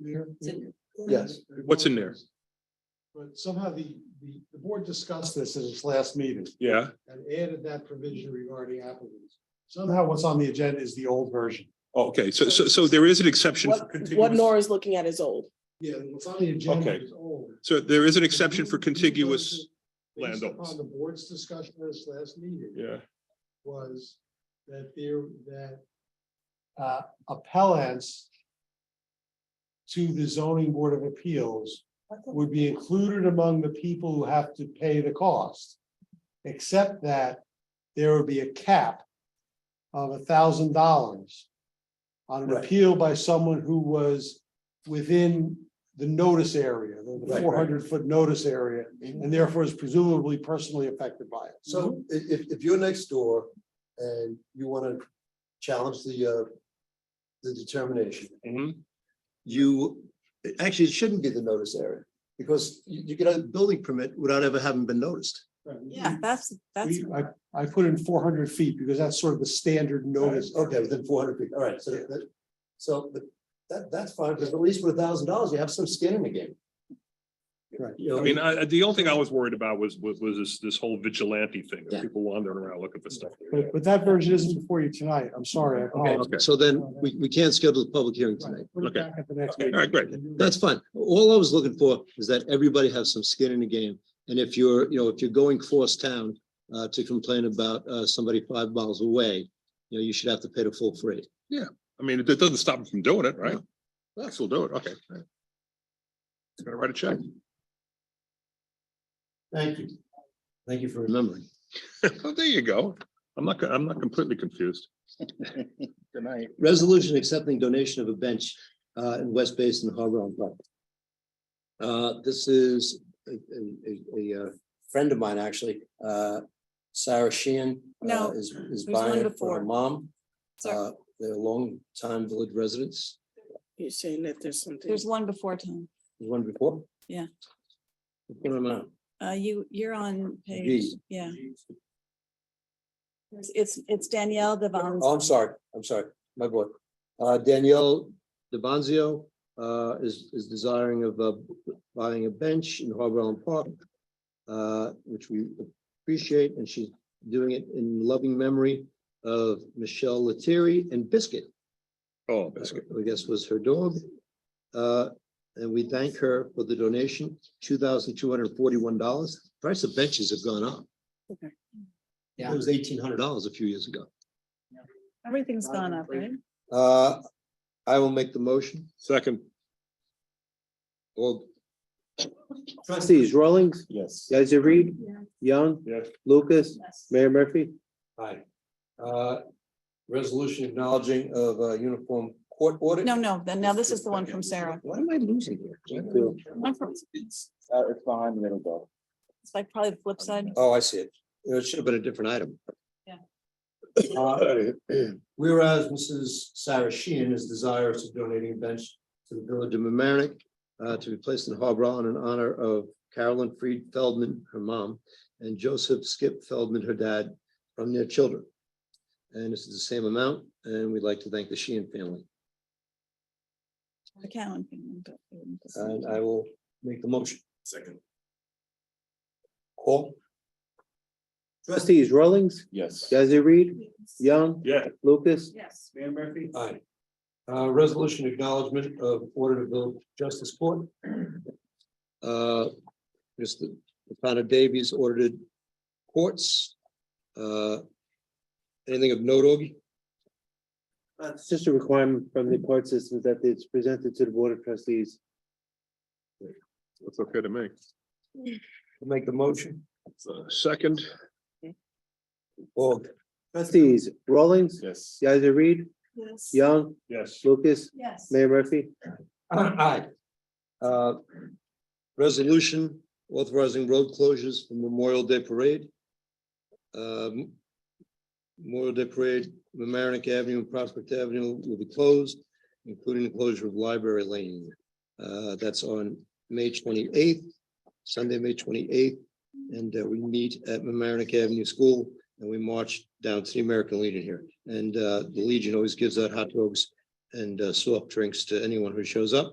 Mayor? It's- Yes. What's in there? But somehow the, the, the board discussed this at its last meeting Yeah, and added that provision regarding applicants. Somehow what's on the agenda is the old version. Oh, okay, so, so, so there is an exception for What, what contiguous, Nora's looking at is old. Yeah, what's on the agenda Okay. is old. so there is an exception for contiguous, Based landowners. upon The board's discussion at its last meeting. yeah, was that there, that uh, appellants to the zoning board of appeals would be included among the people who have to pay the cost. Except that there would be a cap of a thousand dollars on an Right. appeal by someone who was within the notice area, the right. Mm-hmm. four hundred foot notice area, and therefore is presumably personally affected by it. So i- if, if you're next door and you want to challenge the, uh, the determination, Mhm. you, actually, it shouldn't be the notice area. Because you, you get a building permit without ever having been noticed. Yeah, that's, that's, Mm. We, I, I put in four hundred feet because that's sort of the standard notice. Okay, within four hundred feet, all right, so that, that- so, but that, that's fine, because at least with a thousand dollars, you have some skin in the game. Right. You know, I mean, I, I- the only thing I was worried about was, was, was this, this whole vigilante thing, Yeah. of people wandering around looking for stuff. But, but that version isn't before you tonight. I'm sorry. I apologize. Okay. So then, we, we can't schedule the public hearing Right, tonight. Put it Okay. back at the next All meeting. right, great, That's fine. All I was looking for is that everybody have some skin in the game. And if you're, you know, if you're going cross town uh, to complain about uh, somebody five miles away, you know, you should have to pay the full freight. I mean, it it doesn't stop them from doing it, right? That's, we'll do it, okay. All right. Gotta write a check. Thank you. Thank you for remembering. Oh, there you go. I'm not, co- I'm not completely confused. Good night. Resolution accepting donation of a bench uh, in West Basin Harbor on Park. Uh, This is a, a- a- a, uh, friend of mine, actually, uh, Sarah Sheehan. uh, No, Is, is there's one buying it for before. her mom. Sorry. Uh, They're longtime village residents. You're saying that there's something. there's one before Tom. There's one before? Yeah. Put them out. Uh, you, you're on page, G. yeah. It's- It's, it's Danielle Devon. Oh, I'm sorry, I'm sorry, my boy. Uh, Danielle DeBonzio, uh, is, is desiring of, uh, buying a bench in Harbor Island Park, uh, which we appreciate, and she's doing it in loving memory of Michelle Lettieri and Biscuit, Oh, uh, that's good. I guess was her dog. Uh, and we thank her for the donation, two thousand two hundred forty-one dollars. Price of benches have gone up. Okay. It was eighteen hundred dollars a few years ago. Everything's gone up, right? Uh, I will make the motion. Second, Well. Trustees, Rawlings, yes. Guys, Reed, Yeah. Young, Yes. Lucas, Yes. Mayor Murphy. Hi. Uh, resolution acknowledging of uh uniform court order. No, no, then now this is the one from Sarah. What am I losing here? One from- It's Uh, it's behind the middle belt. like probably the flip side. Oh, I see it. It should have been a different item. Uh, Yeah. Whereas Mrs. Sarah Sheehan is desirous of donating a bench to the village of Mamaroneck uh, to be placed in Harbor Island in honor of Carolyn Freed Feldman, her mom, and Joseph Skip Feldman, her dad, from their children. And this is the same amount, and we'd like to thank the Sheehan family. The Cowan thing, but, um, this- And I will make the motion. Second. Call. Trustees Rollings, Yes. Guys, Reed, Young, Yeah. Lucas, Yes. Mayor Murphy? Aye. Uh, resolution acknowledgement of order to build justice court. Uh, Mr. Connor Davies ordered courts. Uh, anything of note, Augie? Uh, It's just a requirement from the court system that it's presented to the board of trustees. That's okay to me. Make the motion. Uh, Second, Or Trustees, Rawlings, yes. Guys, Reed, Yes. Young, Yes. Lucas, Yes. Mayor Murphy. Aye. Uh, Resolution authorizing road closures for Memorial Day Parade. Um, Memorial Day Parade, Mamaroneck Avenue and Prospect Avenue will be closed, including the closure of Library Lane. Uh, That's on May twenty-eighth, Sunday, May twenty-eighth, and uh, we meet at Mamaroneck Avenue School and we march down to the American Legion here. And uh, the Legion always gives out hot dogs and uh, soft drinks to anyone who shows up.